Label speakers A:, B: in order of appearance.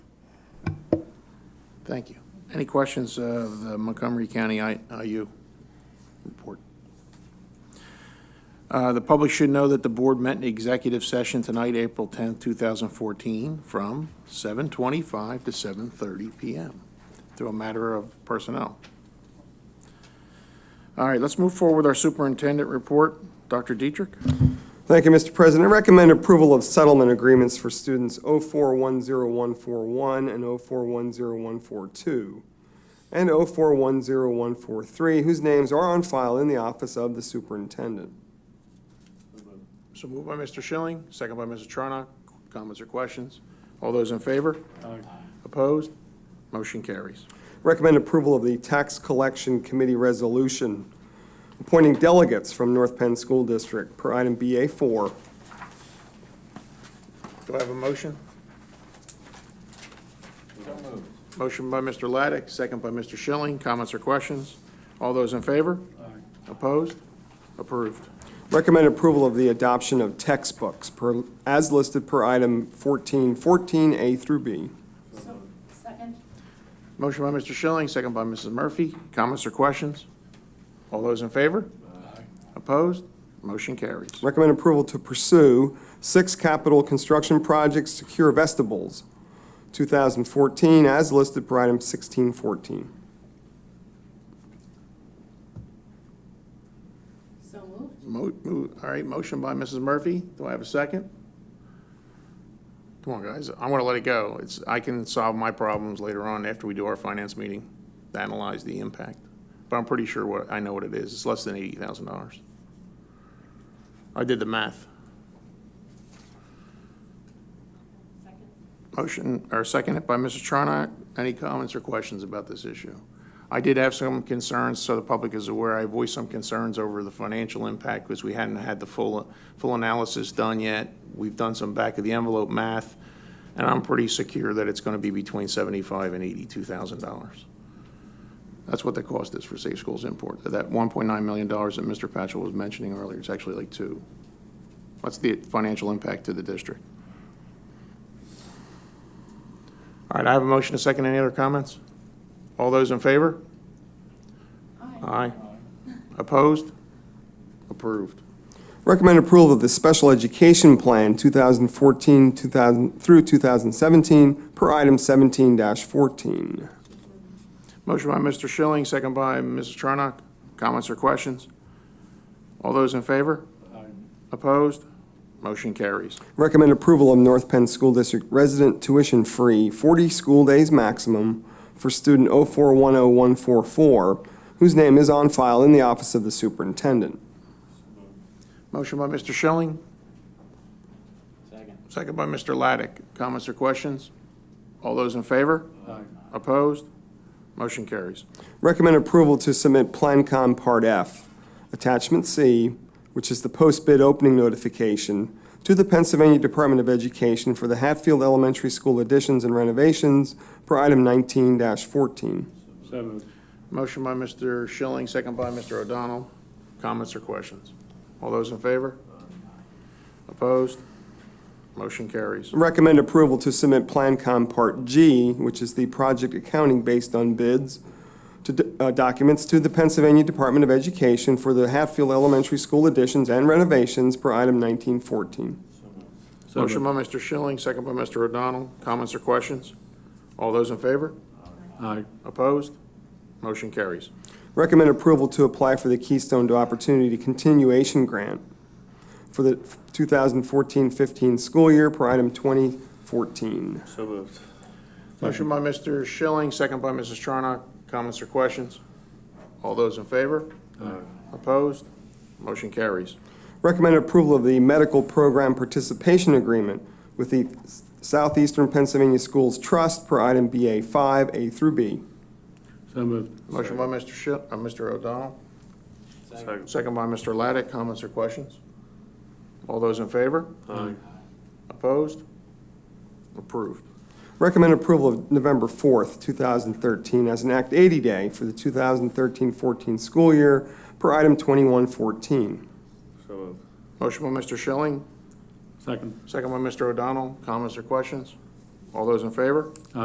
A: Thank you. Any questions of the Montgomery County I- IU report? Uh, The public should know that the board met in executive session tonight, April 10th, 2014, from 7:25 to 7:30 PM through a matter of personnel. All right, let's move forward with our superintendent report. Dr. Dietrich?
B: Thank you, Mr. President. I recommend approval of settlement agreements for students 0410141 and 0410142, and 0410143, whose names are on file in the office of the superintendent.
A: So moved by Mr. Schilling, second by Mrs. Charnock. Comments or questions? All those in favor? Aye. Opposed? Motion carries.
B: Recommend approval of the Tax Collection Committee Resolution appointing delegates from North Penn School District per item BA4.
A: Do I have a motion? Motion by Mr. Laddick, second by Mr. Schilling. Comments or questions? All those in favor? Aye. Opposed? Approved.
B: Recommend approval of the adoption of textbooks per, as listed per item 1414 A through B.
C: Second?
A: Motion by Mr. Schilling, second by Mrs. Murphy. Comments or questions? All those in favor? Aye. Opposed? Motion carries.
B: Recommend approval to pursue six capital construction projects, secure vestibles, 2014, as listed per item 1614.
C: So moved.
A: Mo- mo- All right, motion by Mrs. Murphy. Do I have a second? Come on, guys. I want to let it go. It's, I can solve my problems later on after we do our finance meeting, to analyze the impact. But I'm pretty sure what, I know what it is. It's less than eighty thousand dollars. I did the math.
C: Second?
A: Motion, or seconded by Mrs. Charnock. Any comments or questions about this issue? I did have some concerns, so the public is aware. I voiced some concerns over the financial impact because we hadn't had the full, full analysis done yet. We've done some back of the envelope math, and I'm pretty secure that it's going to be between seventy-five and eighty-two thousand dollars. That's what the cost is for Safe Schools Import. That one point nine million dollars that Mr. Patchell was mentioning earlier, it's actually like two. What's the financial impact to the district? All right, I have a motion, a second, any other comments? All those in favor?
C: Aye.
A: Aye. Opposed? Approved.
B: Recommend approval of the Special Education Plan 2014 2000 through 2017, per item 17-14.
A: Motion by Mr. Schilling, second by Mrs. Charnock. Comments or questions? All those in favor? Opposed? Motion carries.
B: Recommend approval of North Penn School District resident tuition-free, 40 school days maximum for student 0410144, whose name is on file in the office of the superintendent.
A: Motion by Mr. Schilling. Second. Second by Mr. Laddick. Comments or questions? All those in favor? Opposed? Motion carries.
B: Recommend approval to submit Plancom Part F, Attachment C, which is the post-bid opening notification, to the Pennsylvania Department of Education for the Hatfield Elementary School additions and renovations per item 19-14.
D: So moved.
A: Motion by Mr. Schilling, second by Mr. O'Donnell. Comments or questions? All those in favor? Opposed? Motion carries.
B: Recommend approval to submit Plancom Part G, which is the project accounting based on bids, to d- uh, documents to the Pennsylvania Department of Education for the Hatfield Elementary School additions and renovations per item 1914.
A: Motion by Mr. Schilling, second by Mr. O'Donnell. Comments or questions? All those in favor?
D: Aye.
A: Opposed? Motion carries.
B: Recommend approval to apply for the Keystone to Opportunity Continuation Grant for the 2014-15 school year per item 2014.
D: So moved.
A: Motion by Mr. Schilling, second by Mrs. Charnock. Comments or questions? All those in favor? Opposed? Motion carries.
B: Recommend approval of the Medical Program Participation Agreement with the Southeastern Pennsylvania Schools Trust per item BA5, A through B.
D: So moved.
A: Motion by Mr. Shi, uh, Mr. O'Donnell,
D: Second.
A: second by Mr. Laddick. Comments or questions? All those in favor?
D: Aye.
A: Opposed? Approved.
B: Recommend approval of November 4th, 2013, as an Act 80 day for the 2013-14 school year per item 2114.
D: So moved.
A: Motion by Mr. Schilling,
D: Second.
A: second by Mr. O'Donnell. Comments or questions? All those in favor?